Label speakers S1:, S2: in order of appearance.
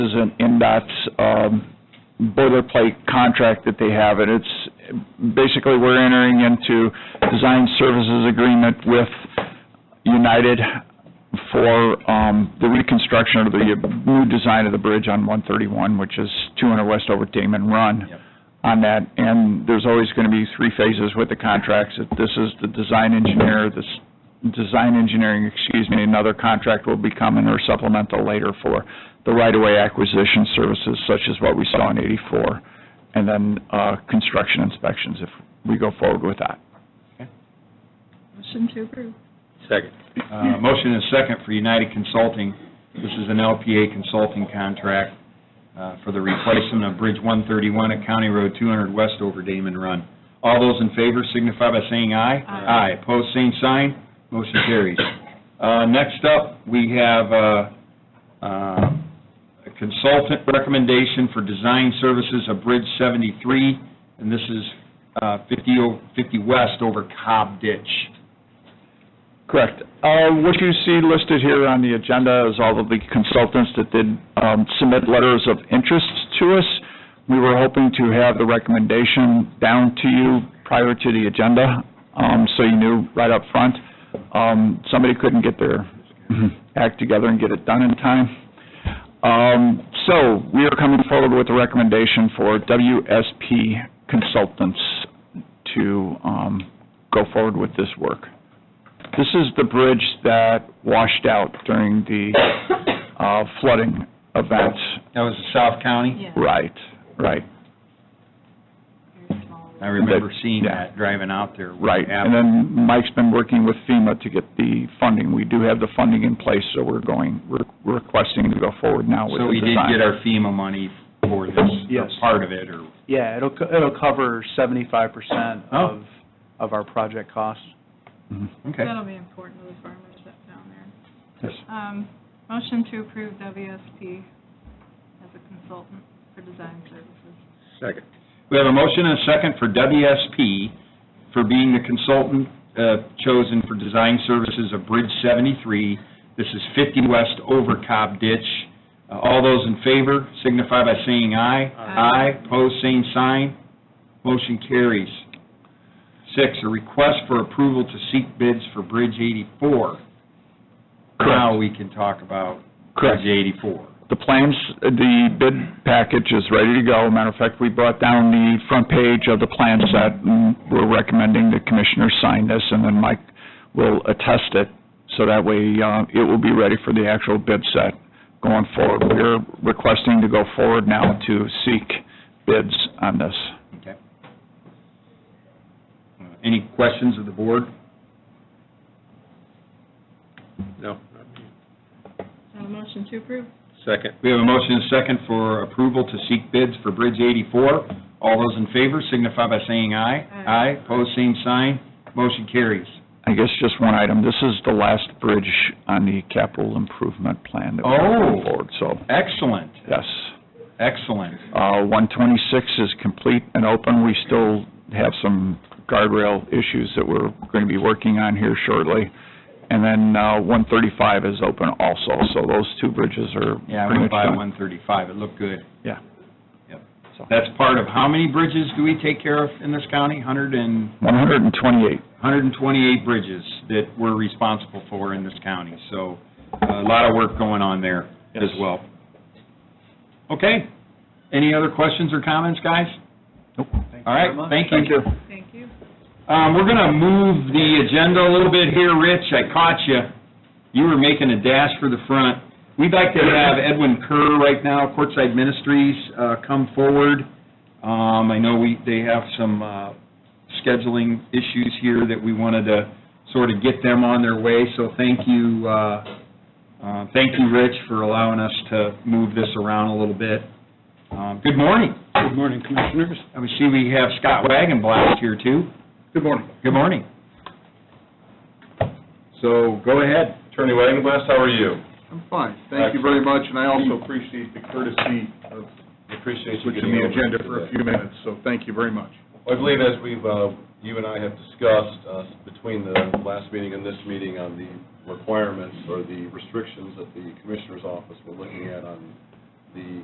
S1: is an NDOT's um, boilerplate contract that they have, and it's, basically, we're entering into design services agreement with United for um, the reconstruction of the new design of the bridge on 131, which is 200 west over Damon Run
S2: Yep.
S1: on that, and there's always going to be three phases with the contracts. If This is the design engineer, this, design engineering, excuse me, another contract will be coming or supplemental later for the right-of-way acquisition services such as what we saw in 84, and then uh, construction inspections if we go forward with that.
S3: Motion to approve.
S2: Second. Uh, Motion is second for United Consulting. This is an LPA consulting contract uh, for the replacement of Bridge 131 at County Road 200 West over Damon Run. All those in favor signify by saying aye.
S3: Aye.
S2: Aye, pose same sign, motion carries. Uh, Next up, we have uh, uh, a consultant recommendation for design services of Bridge 73, and this is uh, 50 o- 50 West over Cobb Ditch.
S1: Correct. Uh, What you see listed here on the agenda is all of the consultants that did um, submit letters of interest to us. We were hoping to have the recommendation down to you prior to the agenda, um, so you knew right up front. Um, Somebody couldn't get their act together and get it done in time. Um, So, we are coming forward with a recommendation for WSP Consultants to um, go forward with this work. This is the bridge that washed out during the uh, flooding event.
S2: That was the South County?
S3: Yeah.
S1: Right, right,
S3: Very small.
S2: I remember
S1: That-
S2: seeing
S1: yeah.
S2: that, driving out there. with
S1: right.
S2: Ab-
S1: And then Mike's been working with FEMA to get the funding. We do have the funding in place, so we're going, we're requesting to go forward now with
S2: So
S1: the
S2: we did
S1: design.
S2: get our FEMA money for this, or
S4: Yes.
S2: part of it, or,
S4: Yeah, it'll, co- it'll cover seventy-five percent of, of our project costs.
S1: Mhm.
S2: Oh. Mm-hmm. okay.
S3: That'll be important to the farmers that down there.
S1: Yes.
S3: Um, motion to approve WSP as a consultant for design services.
S2: Second. We have a motion and a second for WSP for being the consultant uh, chosen for design services of Bridge 73. This is 50 West over Cobb Ditch. Uh, All those in favor signify by saying aye.
S3: Aye.
S2: Aye, pose same sign, motion carries. Six, a request for approval to seek bids for Bridge 84. Now we can talk about Bridge
S1: Correct.
S2: 84.
S1: The plans, the bid package is ready to go. Matter of fact, we brought down the front page of the plan set, and we're recommending the commissioners sign this, and then Mike will attest it, so that way, uh, it will be ready for the actual bid set going forward. We're requesting to go forward now to seek bids on this.
S2: Okay. Uh, Any questions of the board?
S5: No.
S3: So a Uh, motion to approve.
S5: Second.
S2: We have a motion and a second for approval to seek bids for Bridge 84. All those in favor signify by saying aye.
S3: Aye.
S2: Aye, pose same sign, motion carries.
S1: I guess just one item, this is the last bridge on the capital improvement plan that we're
S2: Oh.
S1: going forward, so,
S2: Excellent,
S1: yes.
S2: excellent.
S1: Uh, 126 is complete and open. We still have some guardrail issues that we're going to be working on here shortly. And then uh, 135 is open also, so those two bridges are
S2: Yeah, I
S1: pretty
S2: went
S1: much
S2: by
S1: done.
S2: 135, it looked good.
S1: Yeah.
S2: Yep.
S1: So-
S2: That's part of, how many bridges do we take care of in this county? 100 and,
S1: 128,
S2: 128 bridges that we're responsible for in this county, so uh, a lot of work going on there as
S1: Yes.
S2: well. Okay, any other questions or comments, guys?
S1: nope.
S2: All right, thank you.
S3: Thank you.
S2: Um, We're going to move the agenda a little bit here, Rich. I caught you. You were making a dash for the front. We'd like to have Edwin Kerr right now, Courtside Ministries, uh, come forward. Um, I know we, they have some uh, scheduling issues here that we wanted to sort of get them on their way, so thank you, uh, uh, thank you, Rich, for allowing us to move this around a little bit. Um, Good morning.
S5: Good morning, Commissioners.
S2: I see we have Scott Wagonblast here, too.
S5: Good morning.
S2: Good morning. So, go ahead.
S6: Attorney Wagenblast, how are you?
S7: I'm fine, thank you very much, and I also appreciate the courtesy of
S6: Appreciate you
S7: switching
S6: getting over
S7: the agenda
S6: here
S7: for a
S6: today.
S7: few minutes, so thank you very much.
S6: I believe as we've, uh, you and I have discussed uh, between the last meeting and this meeting on the requirements or the restrictions that the Commissioner's Office were looking at on the